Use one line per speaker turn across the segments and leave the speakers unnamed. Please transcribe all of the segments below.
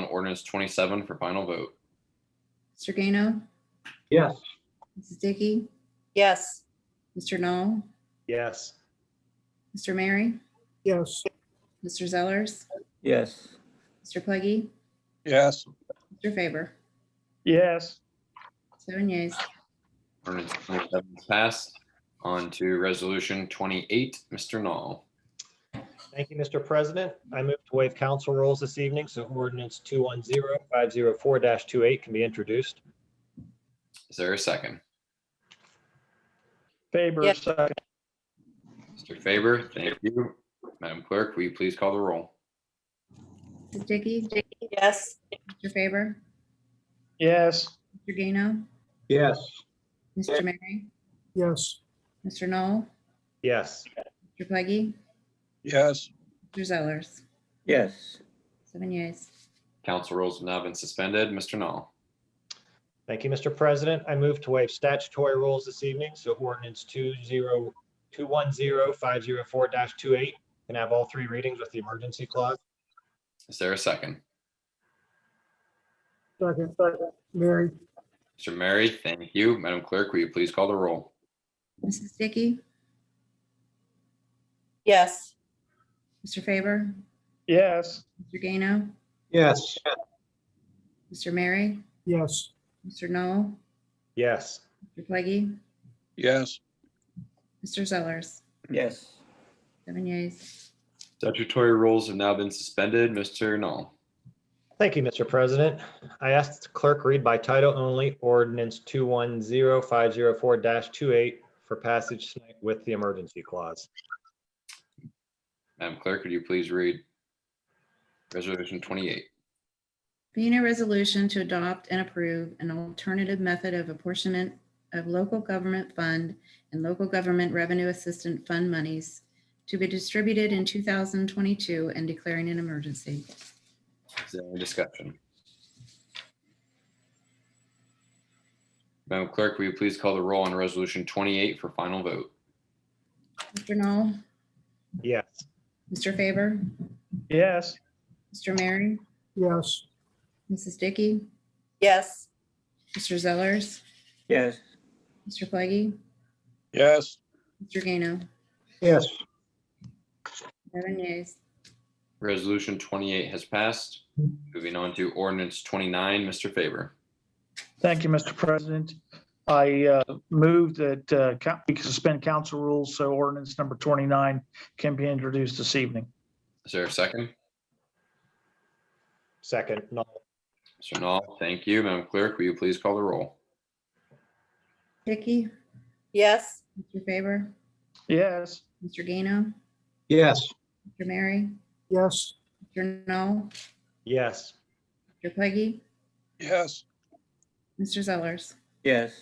ordinance twenty-seven for final vote.
Mr. Gano,
Yes.
Mrs. Dickey,
yes,
Mr. Knoll,
yes,
Mr. Mary,
yes,
Mr. Zellers,
yes,
Mr. Pleggy,
yes,
Mr. Faber.
yes,
Seven yeas.
Ordinance twenty-seven is passed. On to resolution twenty-eight, Mr. Knoll.
Thank you, Mr. President. I move to waive council rules this evening, so ordinance 210504-28 can be introduced.
Is there a second?
Faber,
Yes.
second.
Mr. Faber, thank you. Madam Clerk, will you please call the roll?
Mrs. Dickey,
yes,
Mr. Faber,
Yes,
Mr. Gano,
Yes.
Mr. Mary,
yes,
Mr. Knoll,
yes,
Mr. Pleggy,
yes,
Mr. Zellers.
yes,
Seven yeas.
Council rules have now been suspended. Mr. Knoll,
thank you, Mr. President. I move to waive statutory rules this evening, so ordinance 20 210504-28 can have all three readings with the emergency clause.
is there a second?
second, Mary,
Mr. Mary, thank you. Madam Clerk, will you please call the roll?
Mrs. Dickey,
yes,
Mr. Faber,
Yes.
Mr. Gano,
Yes.
Mr. Mary,
yes,
Mr. Knoll,
Yes,
Mr. Pleggy,
yes,
Mr. Zellers.
yes.
Seven yeas.
Statutory rules have now been suspended. Mr. Knoll,
Thank you, Mr. President. I asked the clerk read by title only ordinance 210504-28 for passage tonight with the emergency clause.
Madam Clerk, would you please read Resolution 28?
Being a resolution to adopt and approve an alternative method of apportionment of local government fund and local government revenue assistant fund monies to be distributed in 2022 and declaring an emergency.
Is there any discussion? Madam Clerk, will you please call the roll on Resolution 28 for final vote?
Mr. Knoll,
Yes.
Mr. Faber,
Yes.
Mr. Mary,
yes,
Mrs. Dickey,
yes,
Mr. Zellers,
Yes,
Mr. Pleggy,
yes,
Mr. Gano,
Yes.
seven yeas.
Resolution 28 has passed. Moving on to ordinance 29, Mr. Faber.
Thank you, Mr. President. I uh, move that uh, coun- we suspend council rules so ordinance number 29 can be introduced this evening.
Is there a second?
Second, Knoll.
Mr. Knoll, thank you. Madam Clerk, will you please call the roll?
Dickey,
yes,
Mr. Faber,
Yes,
Mr. Gano,
Yes.
Mr. Mary,
yes,
Mr. Knoll,
Yes,
Mr. Pleggy,
yes,
Mr. Zellers,
yes,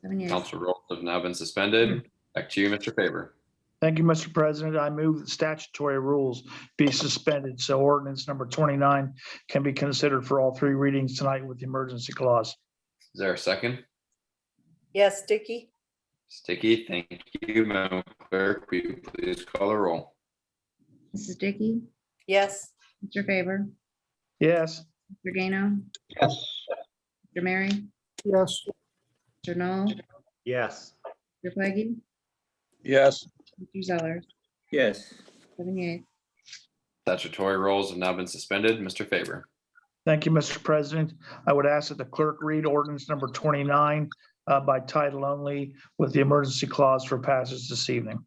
seven yeas.
Council rules have now been suspended. Back to you, Mr. Faber.
thank you, Mr. President. I move that statutory rules be suspended so ordinance number 29 can be considered for all three readings tonight with the emergency clause.
Is there a second?
yes, Dicky,
Sticky, thank you. Madam Clerk, will you please call the roll?
Mrs. Dickey,
yes,
Mr. Faber,
Yes,
Mr. Gano,
Yes.
Mr. Mary,
yes,
Mr. Knoll,
yes,
Mr. Pleggy,
yes,
Mr. Zellers,
yes,
seven yeas.
Statutory rules have now been suspended. Mr. Faber.
thank you, Mr. President. I would ask that the clerk read ordinance number 29 uh, by title only with the emergency clause for passage this evening.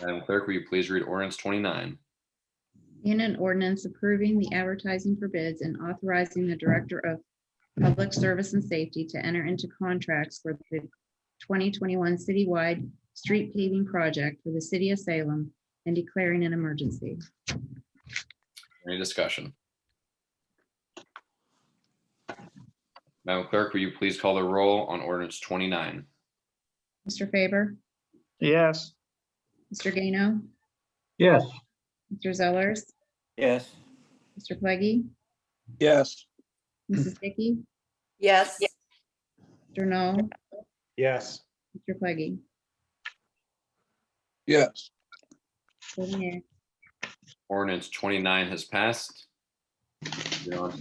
Madam Clerk, will you please read ordinance 29?
In an ordinance approving the advertising for bids and authorizing the Director of Public Service and Safety to enter into contracts for the 2021 citywide street paving project for the city of Salem and declaring an emergency.
Any discussion? Madam Clerk, will you please call the roll on ordinance 29?
Mr. Faber,
Yes.
Mr. Gano,
Yes.
Mr. Zellers,
yes,
Mr. Pleggy,
yes,
Mrs. Dickey,
yes,
Mr. Knoll,
yes,
Mr. Pleggy.
yes,
Seven yeas.
Ordinance 29 has passed. Moving on to